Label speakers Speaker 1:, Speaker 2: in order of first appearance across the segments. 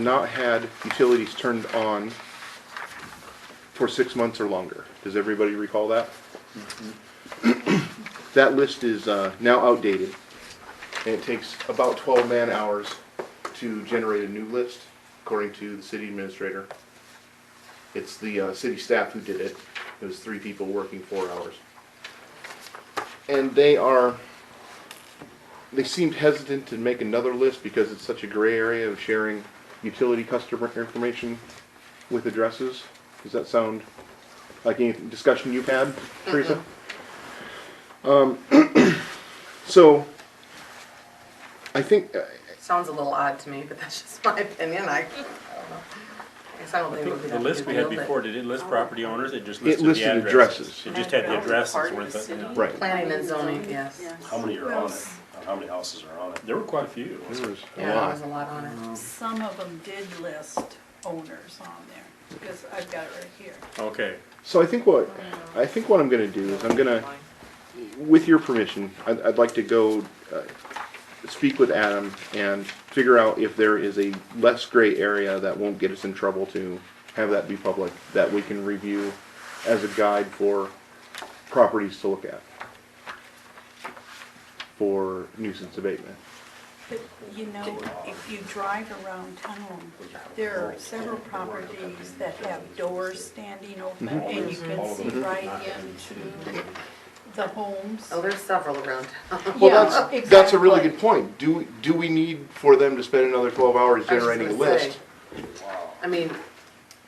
Speaker 1: not had utilities turned on for six months or longer. Does everybody recall that? That list is uh, now outdated, and it takes about 12 man-hours to generate a new list, according to the city administrator. It's the uh, city staff who did it. It was three people working four hours. And they are they seemed hesitant to make another list because it's such a gray area of sharing utility customer information with addresses. Does that sound like any discussion you've had, Teresa? Um, so, I think, uh,
Speaker 2: Sounds a little odd to me, but that's just my opinion, I, I don't know. I guess I don't think we would have
Speaker 3: The
Speaker 2: to
Speaker 3: list we had
Speaker 2: rebuild it.
Speaker 3: before, did it list property owners? It just
Speaker 1: It
Speaker 3: listed the
Speaker 1: listed
Speaker 3: addresses.
Speaker 1: addresses.
Speaker 3: It just had the addresses worth it. yeah.
Speaker 1: right,
Speaker 2: Planning and zoning, yes.
Speaker 4: How many are on it? Uh, How many houses are on it?
Speaker 3: There were quite a few.
Speaker 1: there was a
Speaker 2: Yeah, there was a
Speaker 1: lot.
Speaker 2: lot on it.
Speaker 5: Some of them did list owners on there, because I've got it right here.
Speaker 3: Okay,
Speaker 1: So I think what, I think what I'm gonna do is I'm gonna, with your permission, I'd, I'd like to go uh, speak with Adam and figure out if there is a less gray area that won't get us in trouble to have that be public, that we can review as a guide for properties to look at for nuisance abatement.
Speaker 5: But, you know, if you drive around town, there are several properties that have doors standing open, and you can see
Speaker 3: Mm-hmm.
Speaker 5: right into the homes.
Speaker 2: Oh, there's several around town.
Speaker 1: Well,
Speaker 5: Yeah,
Speaker 1: that's, that's a really
Speaker 5: exactly.
Speaker 1: good point. Do, do we need for them to spend another twelve hours
Speaker 2: I was just
Speaker 1: generating a
Speaker 2: gonna say,
Speaker 1: list?
Speaker 2: I mean,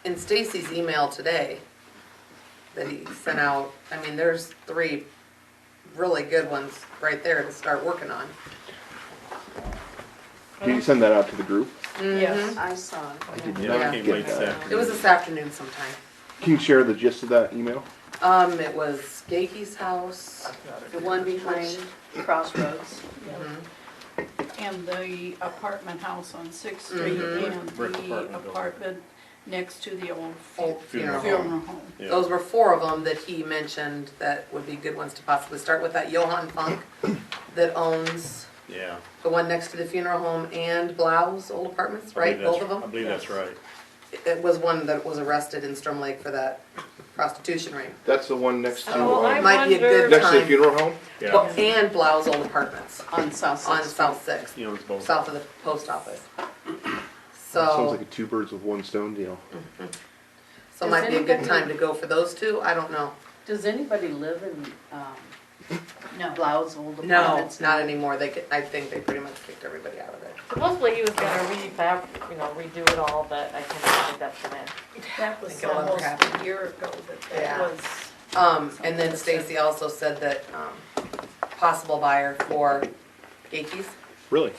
Speaker 2: in Stacy's email today that he sent out, I mean, there's three really good ones right there to start working on.
Speaker 1: Can you send that out to the group?
Speaker 5: Yes.
Speaker 6: I saw it.
Speaker 1: I did
Speaker 3: yeah,
Speaker 1: not
Speaker 3: it came late
Speaker 1: get
Speaker 3: this
Speaker 1: that.
Speaker 2: It was
Speaker 3: afternoon.
Speaker 2: this afternoon sometime.
Speaker 1: Can you share the gist of that email?
Speaker 2: Um, it was Skake's house,
Speaker 6: The one behind Crossroads.
Speaker 1: Mm-hmm.
Speaker 3: Mm-hmm.
Speaker 5: And the apartment house on Sixth Street,
Speaker 1: Mm-hmm.
Speaker 5: and
Speaker 3: Brick
Speaker 5: the
Speaker 3: apartment building.
Speaker 5: apartment next to the old fu-
Speaker 2: old funeral home.
Speaker 5: funeral home.
Speaker 3: Yeah.
Speaker 2: Those were four of them that he mentioned that would be good ones to possibly start with. That Johann Funk that owns
Speaker 3: Yeah.
Speaker 2: the one next to the funeral home and Blau's old apartments,
Speaker 3: I
Speaker 2: right?
Speaker 3: believe that's-
Speaker 2: Both of
Speaker 3: I
Speaker 2: them?
Speaker 3: believe that's right.
Speaker 2: It was one that was arrested in Storm Lake for that prostitution ring.
Speaker 1: That's the one next to,
Speaker 6: Oh,
Speaker 1: uh,
Speaker 6: I
Speaker 2: Might be a good
Speaker 6: wonder-
Speaker 1: next to the
Speaker 2: time.
Speaker 1: funeral home?
Speaker 2: Well,
Speaker 3: Yeah,
Speaker 2: And Blau's old apartments
Speaker 6: On South
Speaker 2: on
Speaker 6: Sixth.
Speaker 2: South Sixth,
Speaker 3: he owns both.
Speaker 2: south of the post office.
Speaker 1: Sounds like
Speaker 2: So,
Speaker 1: a two birds with one stone deal.
Speaker 2: so might be a good time to go for those two. I don't know.
Speaker 6: Does anybody live in, um,
Speaker 5: No.
Speaker 6: Blau's old
Speaker 2: No,
Speaker 6: apartments?
Speaker 2: not anymore. They, could- I think they pretty much kicked everybody out of it.
Speaker 7: Supposedly he was gonna refab, you know, redo it all, but I cannot think that's the man.
Speaker 5: That was
Speaker 2: it will never
Speaker 5: almost
Speaker 2: happen.
Speaker 5: a year ago that
Speaker 2: Yeah.
Speaker 5: that was,
Speaker 2: Um, and then Stacy also said that, um, possible buyer for Gatekeys,
Speaker 1: Really?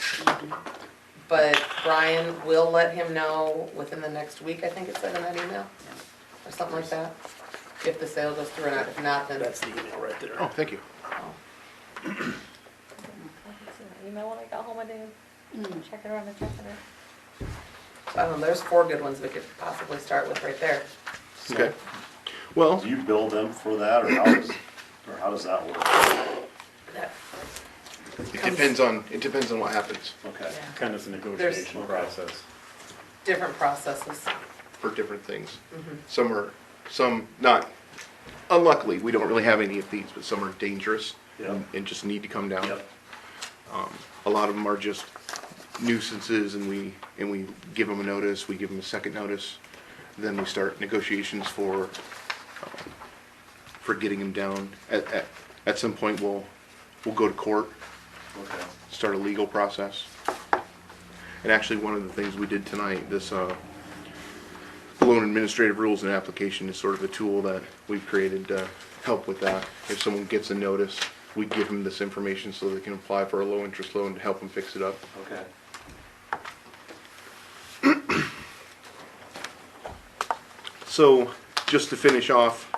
Speaker 2: but Brian will let him know within the next week, I think it said in that email, or something like that, if the sale goes through or not, if not, then.
Speaker 3: the email right there.
Speaker 1: Oh, thank you.
Speaker 7: Email when I got home, I didn't check it around and check it out.
Speaker 2: I don't know, there's four good ones we could possibly start with right there.
Speaker 1: Okay. Well,
Speaker 4: Do you bill them for that, or how does, or how does that work?
Speaker 2: That-
Speaker 1: it depends on, it depends on what happens
Speaker 4: Okay.
Speaker 3: Kind of a negotiation
Speaker 4: There's-
Speaker 3: process.
Speaker 2: Different processes.
Speaker 1: for different things.
Speaker 2: Mm-hmm.
Speaker 1: Some are, some not, unluckily, we don't really have any of these, but some are dangerous
Speaker 4: Yeah.
Speaker 1: and just need to come down.
Speaker 4: Yep.
Speaker 1: A lot of them are just nuisances and we, and we give them a notice, we give them a second notice. Then we start negotiations for, uh, for getting them down. At, at, at some point, we'll, we'll go to court,
Speaker 4: Okay.
Speaker 1: start a legal process. And actually, one of the things we did tonight, this, uh, loan administrative rules and application is sort of a tool that we've created to help with that. If someone gets a notice, we give them this information so they can apply for a low-interest loan to help them fix it up.
Speaker 4: Okay.
Speaker 1: So, just to finish off,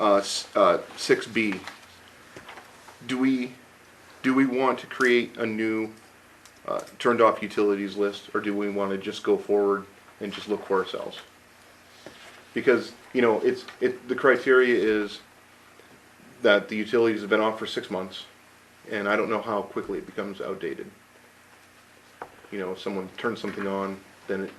Speaker 1: uh, s- uh, six B, do we, do we want to create a new, uh, turned off utilities list, or do we wanna just go forward and just look for ourselves? Because, you know, it's, it, the criteria is that the utilities have been off for six months, and I don't know how quickly it becomes outdated. You know, if someone turns something on then it